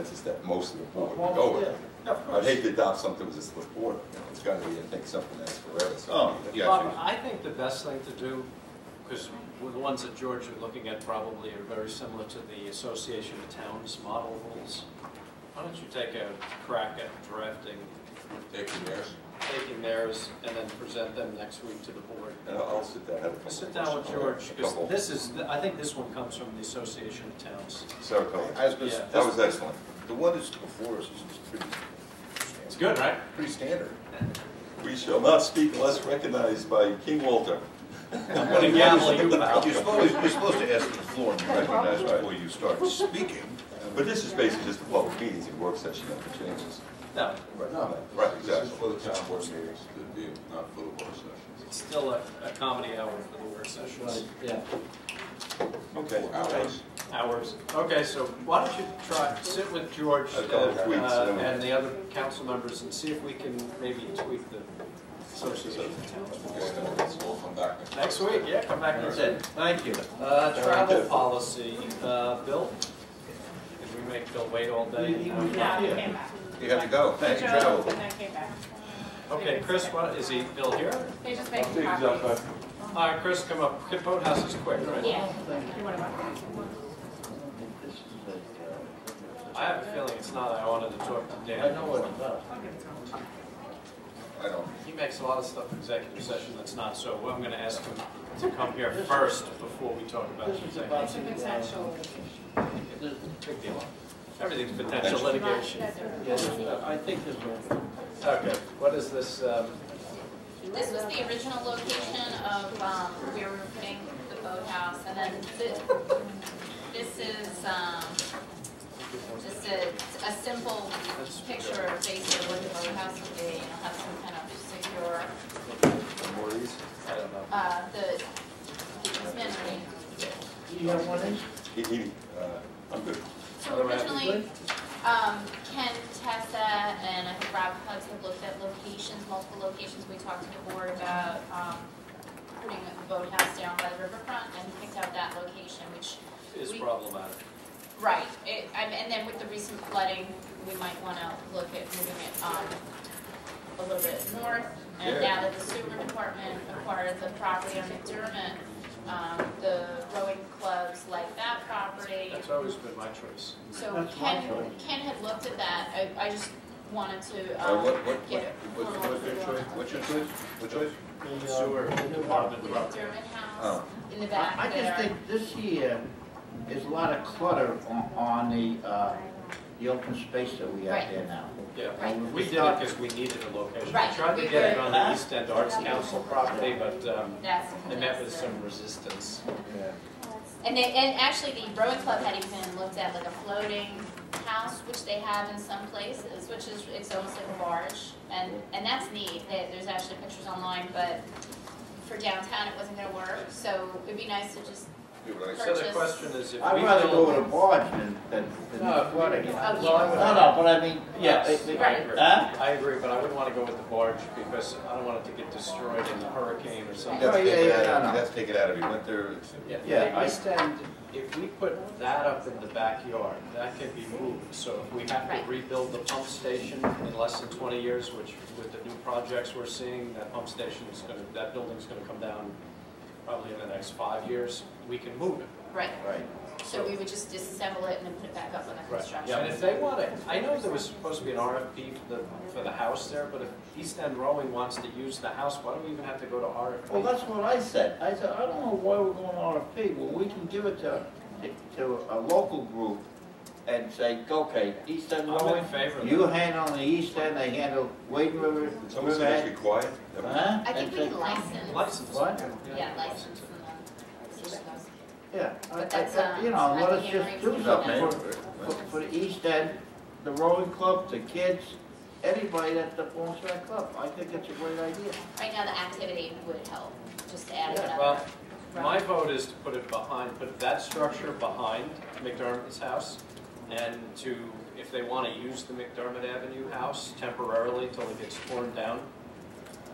consensus that most of the board Well, would go yeah, with. yeah, of I'd course. hate to adopt something with a split board, you know, it's gotta be, I think, something that's forever, so. Oh, yeah. Bob, I think the best thing to do, because the ones that George was looking at probably are very similar to the Association of Towns model rules. Why don't you take a crack at drafting, Taking theirs. taking theirs, and then present them next week to the board? And I'll I'll sit down, and have a couple. Sit down with questions. George, because Couple. this is, I think this one comes from the Association of Towns. Sarah Cohen. I was gonna, Yeah. s- that was excellent. the one that's before us is pretty, It's good, right? pretty standard. We shall not speak unless recognized by King Walter. I'm gonna gavel you out. You're supposed, you're supposed to ask for the floor and be recognized before you start speaking. But this is basically just a public meetings and work session, nothing changes. No, Right, right, This exactly. is for the town board meetings to be, not for the work sessions. it's still a, a comedy hour for the work sessions. Yeah. Okay. Hours. hours. Okay, so why don't you try, sit with George A couple of uh, weeks, uh, then we- and the other council members and see if we can maybe tweak the association town. Okay, then we'll come back next. Next week, yeah, come back and say, thank you. Uh, travel policy, uh, Bill? Did we make Bill wait all day? Yeah, I came back. You have to go, thank you, Joe, travel. And then came back. Okay, Chris, what, is he, Bill here? They just make copies. All right, Chris, come up, Kip Boathouse is quick, right? Yeah. You want to- I have a feeling it's not, I wanted to talk to I Dan. know what it's about. I don't, He makes a lot of stuff in executive session that's not, so I'm gonna ask him to come here first before we talk about This is executive. about It's a potential. This- Big deal. Everything's potential litigation. Yes, I think this will. Okay, what is this, um, This was the original location of um, where we were putting the boathouse, and then thi- this is, um, just a, a simple picture of basically what the boathouse would be, and it'll have some kind of secure, More easy. I don't know. uh, the easement. You have one in? He, he, uh, I'm good. So originally, um, Ken, Tessa, and I think Rob Hugs have looked at locations, multiple locations, we talked to the board about, um, putting a boathouse down by the riverfront, and picked out that location, which Is We- problematic. Right, it, and, and then with the recent flooding, we might wanna look at moving it, um, a little bit north. And now that the sewer department acquired the property on McDermott, um, the rowing clubs like that property. That's always been my choice. So That's my Ken, choice. Ken had looked at that, I, I just wanted to, uh, um, what, what, get it. what, what's your choice, what's your choice, what choice? The, uh, Sewer the new department, The the rubber. McDermott house Oh. in the back I I there. just think this year is a lot of clutter on, on the, uh, the open space that we have Right. there now. Yeah, Right. we did it because we needed a location. We Right, tried to we get it were- on the East End Arts Council property, but, um, That's. they met with some resistance. Yeah. And they, and actually, the rowing club had even looked at like a floating house, which they have in some places, which is, it's almost like a barge, and, and that's neat, There- there's actually pictures online, but for downtown, it wasn't gonna work, so it'd be nice to just, You were like, So the question is if we. I'd rather go build- with a barge than, than, than No, if flooding. we- No, oh, Well, I yeah. would- no, but I mean, yeah. Yes, it- it- I agree. Huh? I agree, but I wouldn't want to go with the barge because I don't want it to get destroyed in a hurricane or something. that's Oh, yeah, taken yeah, out no, of, no. that's taken out of you, went there, it's- Yeah. Yeah, I stand, if we put that up in the backyard, that can be moved. So if we have Right. to rebuild the pump station in less than 20 years, which with the new projects we're seeing, that pump station is going to, that building's going to come down probably in the next five years, we can move it. right, Right. so we would just disassemble it and then put it back up on the construction. Yeah, and if they want it, I know there was supposed to be an RFP for the, for the house there, but if East End Rowing wants to use the house, why do we even have to go to RFP? Well, that's what I said. I said, I don't know why we're going RFP. Well, we can give it to, to a local group and say, okay, East End I'm Rowing, in favor of you that. handle the East End, they handle Wade River, It's almost gonna be Riverhead. quiet. Huh? I think And we say- can license. License. What? Yeah, license and then, see what goes. Yeah, I- I- But that's, uh, you know, I let think us you're just right. do Yeah. something man, for, for, for the East End, the rowing club, the kids, anybody that belongs to that club. I think it's a great idea. Right now, the activity would help, just to add Yeah. another. Well, my vote is to put it behind, put that structure behind McDermott's house, and to, if they want to use the McDermott Avenue house temporarily till it gets torn down,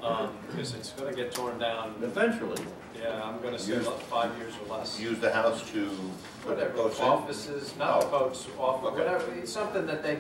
um, because it's gonna get torn down, Eventually, yeah, I'm gonna say about five years or less. Use the house to put their Whatever, boats in? offices, not Oh. boats, off, Okay. whatever, it's something that they